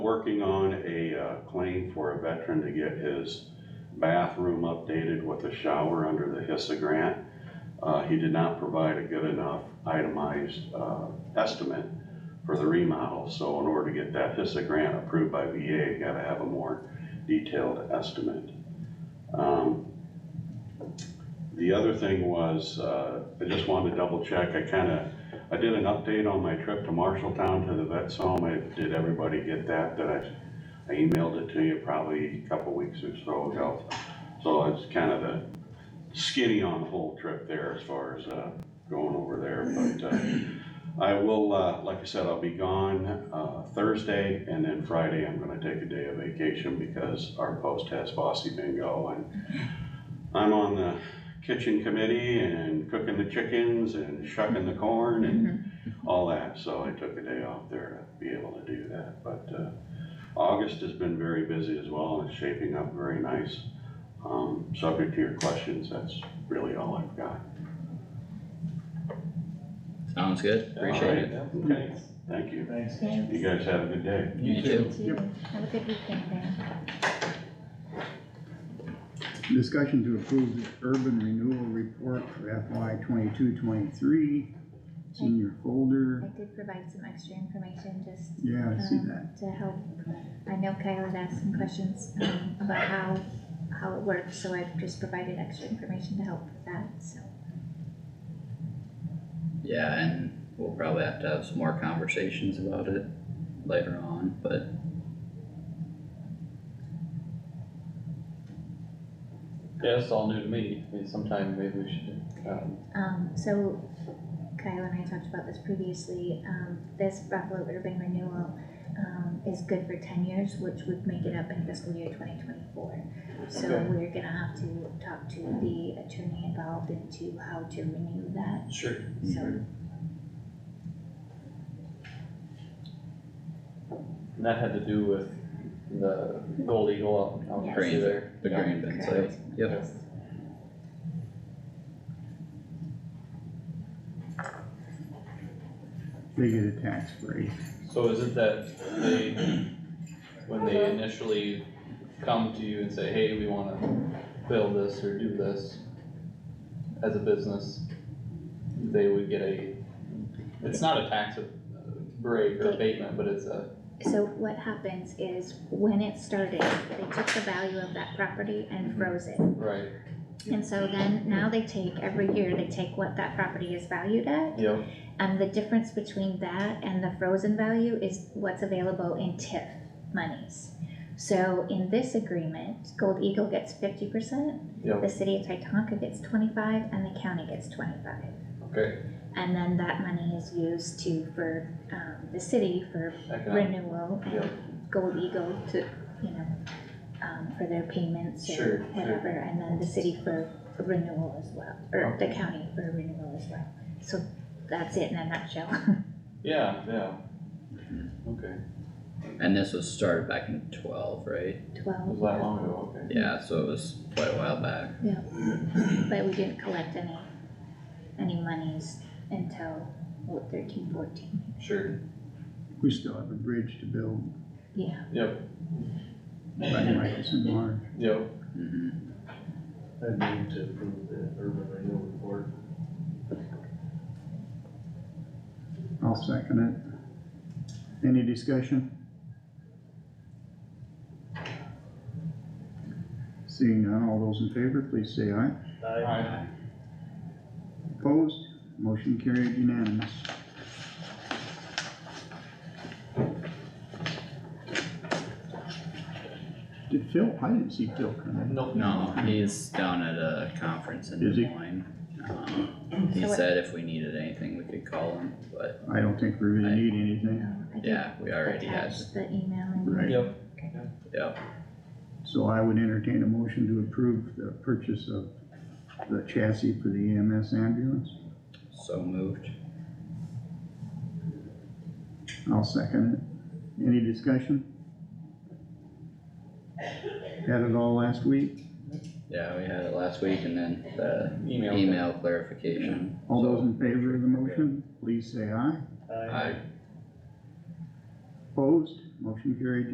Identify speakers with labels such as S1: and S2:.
S1: working on a uh, claim for a veteran to get his bathroom updated with a shower under the HISA grant. Uh, he did not provide a good enough itemized, uh, estimate for the remodel, so in order to get that HISA grant approved by VA, you gotta have a more detailed estimate. Um, The other thing was, uh, I just wanted to double check, I kinda, I did an update on my trip to Marshalltown to the vet's home, I, did everybody get that, that I, I emailed it to you probably a couple weeks or so ago. So it's kinda the skinny on the whole trip there as far as, uh, going over there, but, uh, I will, uh, like I said, I'll be gone, uh, Thursday, and then Friday, I'm gonna take a day of vacation because our post has bossy bingo, and I'm on the kitchen committee and cooking the chickens and shucking the corn
S2: Mm-hmm.
S1: and all that, so I took a day off there to be able to do that, but, uh, August has been very busy as well, and it's shaping up very nice. Um, subject to your questions, that's really all I've got.
S3: Sounds good, appreciate it.
S4: Mm-hmm.
S1: Okay, thank you.
S4: Thanks.
S1: You
S5: Thanks.
S1: guys have a good day.
S3: You too.
S5: You too. Have a good weekend, Dan.
S2: Discussion to approve the urban renewal report for FY twenty-two, twenty-three. It's in your
S5: I
S2: folder.
S5: did provide some extra information just
S2: Yeah, I see
S5: um,
S2: that.
S5: To help, I know Kyle had asked some questions, um, about how, how it works, so I've just provided extra information to help with that, so.
S3: Yeah, and we'll probably have to have some more conversations about it later on, but
S4: Yeah, it's all new to me, I mean, sometime maybe we should, um,
S5: Um, so Kyle and I talked about this previously, um, this Buffalo Urban Renewal, um, is good for ten years, which would make it up in fiscal year twenty twenty-four. So
S4: Okay.
S5: we're gonna have to talk to the attorney involved into how to renew that,
S4: Sure.
S5: so,
S4: And that had to do with the Gold Eagle out, out
S3: Green.
S4: through there.
S3: the
S4: Yeah.
S3: green bin site, yep,
S5: yes.
S2: They get a tax break.
S4: So is it that they, when they initially come to you and say, hey, we wanna build this or do this as a business, they would get a, it's not a tax uh, break or abatement, but it's a,
S5: So what happens is, when it started, they took the value of that property and froze it.
S4: right,
S5: And so then, now they take, every year, they take what that property is valued at,
S4: yep.
S5: and the difference between that and the frozen value is what's available in TIF monies. So in this agreement, Gold Eagle gets fifty percent,
S4: Yep.
S5: the city of Titanca gets twenty-five, and the county gets twenty-five.
S4: Okay,
S5: And then that money is used to, for, um, the city for
S4: economic,
S5: renewal
S4: Yeah.
S5: and Gold Eagle to, you know, um, for their payments
S4: Sure,
S5: or
S4: sure.
S5: whatever, and then the city for renewal as well, or the county for renewal as well. So that's it in a nutshell.
S4: yeah, yeah. Okay,
S3: and this was started back in twelve, right?
S4: it was
S5: Twelve,
S4: that long ago, okay.
S3: Yeah, so it was quite a while back,
S5: but we didn't collect any, any monies until what, thirteen, fourteen?
S4: Sure,
S2: We still have a bridge to build
S5: Yeah,
S4: yep,
S2: by Michelson Marsh.
S4: yep,
S3: mhm,
S6: I move to approve the urban renewal report.
S2: I'll second it. Any discussion? Seeing none, all those in favor, please say aye.
S4: alright,
S2: Opposed? Motion carried unanimous. Did Phil, I didn't see Phil come
S4: no.
S3: no, he's down at a conference in
S2: Is
S3: Des
S2: he?
S3: Moines. Um, he
S5: So what-
S3: said if we needed anything, we could call him, but
S2: in. I don't think we really need anything,
S5: um, I did
S3: Mm-hmm. yeah, we already had,
S5: attach the email and
S2: right?
S4: Yep,
S3: yep,
S2: So I would entertain a motion to approve the purchase of the chassis for the EMS ambulance.
S3: so moved.
S2: I'll second it. Any discussion? Had it all last week.
S3: Yeah, we had it last week and then the
S4: email.
S3: email clarification.
S2: All those in favor of the motion, please say aye.
S3: I
S2: Opposed? Motion carried